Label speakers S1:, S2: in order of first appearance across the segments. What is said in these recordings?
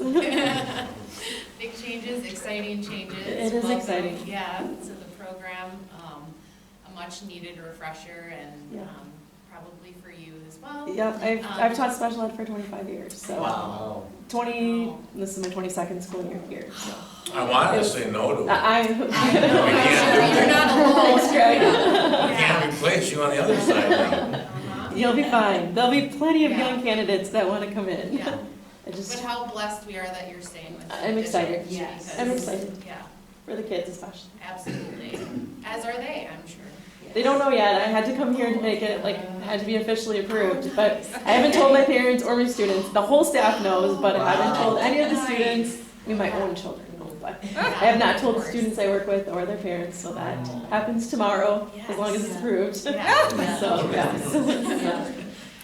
S1: million changes.
S2: It is
S1: Welcome,
S2: exciting.
S1: Yeah, to the program, um, a much needed refresher and,
S2: Yeah.
S1: um, probably for you as well.
S2: Yep, I've,
S1: Um,
S2: I've taught special ed for twenty-five years, so
S1: Wow.
S3: Wow.
S2: twenty, this is my twenty-second school year here, so.
S4: I wanted to say no to it.
S2: I,
S1: I
S2: I-
S1: know,
S4: We
S1: I'm sure you're
S4: can't do that.
S1: not alone.
S2: Thanks, Greg.
S4: I can't replace you on the other side now.
S1: Uh-huh.
S2: you'll be fine, there'll be plenty of
S1: Yeah.
S2: young candidates that wanna come in.
S1: Yeah,
S2: I
S1: but
S2: just,
S1: how blessed we are that you're staying with us.
S2: I'm excited.
S1: Yes.
S2: I'm excited,
S1: Yeah,
S2: for the kids especially.
S1: absolutely, as are they, I'm sure.
S2: They don't know yet, I had to come here to make it, like, had to be officially approved, but I haven't told my parents or my students, the whole staff knows, but I haven't told any of the
S1: Nice.
S2: students, I mean, my own children know, but
S1: Yeah,
S2: I have not told the
S1: of course.
S2: students I work with or their parents, so that happens tomorrow, as long as it's
S1: Yes.
S2: approved. So,
S1: Yeah.
S2: yeah, so,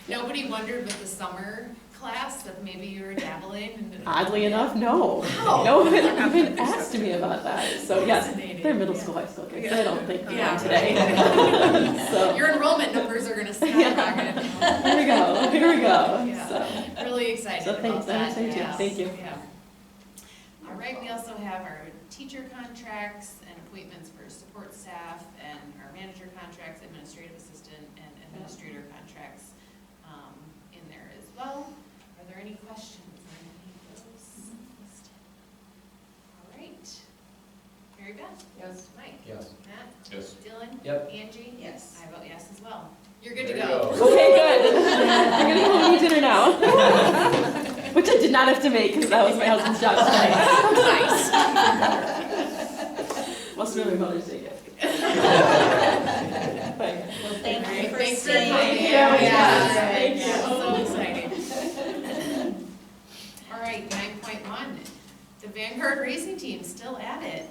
S1: Nobody wondered with the summer class that maybe you were dabbling and.
S2: oddly enough, no.
S1: Wow.
S2: No one even asked me about that, so yes,
S1: Fascinating.
S2: they're middle school, high school kids, I don't think they
S1: Yeah.
S2: know today, so,
S1: Your enrollment numbers are gonna skyrocket.
S2: here we go, here we go,
S1: Yeah.
S2: so.
S1: Really excited
S2: So thanks,
S1: about
S2: I'm
S1: that.
S2: excited too.
S1: yes,
S2: Thank you.
S1: yeah. All right, we also have our teacher contracts and appointments for support staff and our manager contracts, administrative assistant and administrator contracts um, in there as well. Are there any questions on any of those listed? All right. Mary Beth? Yes. Mike?
S3: Yes.
S1: Matt?
S4: Yes.
S1: Dylan?
S3: Yep.
S1: Angie?
S5: Yes.
S1: I vote yes as well. You're good to
S3: There you
S1: go.
S2: Okay, good. I'm gonna go eat dinner now. Which I did not have to make because that was my husband's job tonight.
S1: Nice.
S2: Must have been my mother's day gift. But-
S5: Well, thank you for
S1: Thanks for
S5: staying.
S1: coming.
S2: Yeah,
S1: Yes,
S2: yeah. Thank you.
S1: So exciting. All right, nine point one, the Vanguard Racing Team still at it.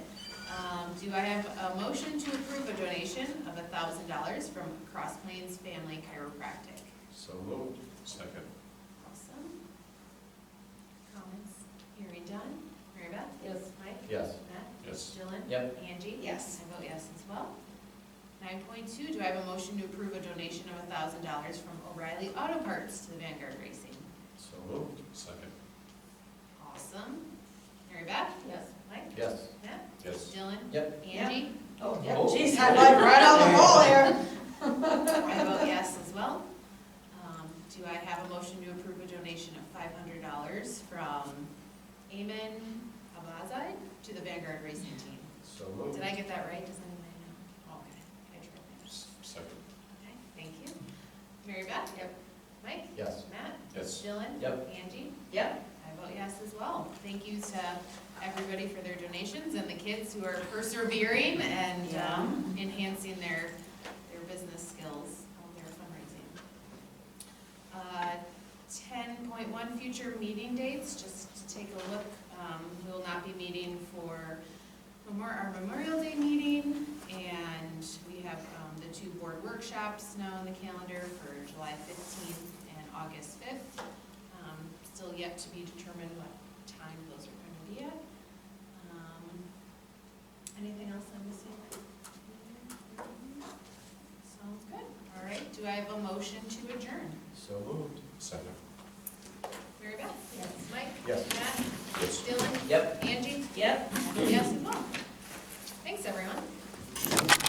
S1: Um, do I have a motion to approve a donation of thousand dollars from Cross Plains Family Chiropractic?
S4: So moved. Second.
S1: Awesome. Comments? Hearing done. Mary Beth?
S5: Yes.
S1: Mike?
S3: Yes.
S1: Matt?
S4: Yes.
S1: Dylan?
S3: Yep.
S1: Angie?
S5: Yes.
S1: I vote yes as well. Nine point two, do I have a motion to approve a donation of thousand dollars from O'Reilly Auto Parts to the Vanguard Racing?
S4: So moved. Second.
S1: Awesome. Mary Beth?
S5: Yes.
S1: Mike?
S3: Yes.
S1: Matt?
S4: Yes.
S1: Dylan?
S3: Yep.
S1: Angie?
S5: Oh, yeah,
S3: Oh.
S5: geez, I like right on the ball here.
S1: I vote yes as well. Um, Do I have a motion to approve a donation of five hundred dollars from Amen Abazai to the Vanguard Racing Team?
S3: So moved.
S1: Did I get that right? Does anybody know? Oh, Okay, I tripped.
S4: S- Second.
S1: Okay, thank you. Mary Beth? Yep. Mike?
S3: Yes.
S1: Matt?
S4: Yes.
S1: Dylan?
S3: Yep.
S1: Angie?
S5: Yep.
S1: I vote yes as well. Thank you to everybody for their donations and the kids who are persevering and um, enhancing their, their business skills, on their fundraising. Uh, Ten point one, future meeting dates, just to take a look, um, we will not be meeting for memor- our Memorial Day meeting, and we have um, the two board workshops now on the calendar for July fifteenth and August fifth. Um, Still yet to be determined what time those are going to be at. Um, Anything else I'm missing? Sounds good. All right, do I have a motion to adjourn?
S3: So moved.
S4: Second.
S1: Mary Beth?
S5: Yes.
S1: Mike?
S3: Yes.
S1: Matt?
S4: Yes.
S1: Dylan?
S3: Yep.
S1: Angie?
S5: Yep.
S1: Yes as well. Thanks, everyone.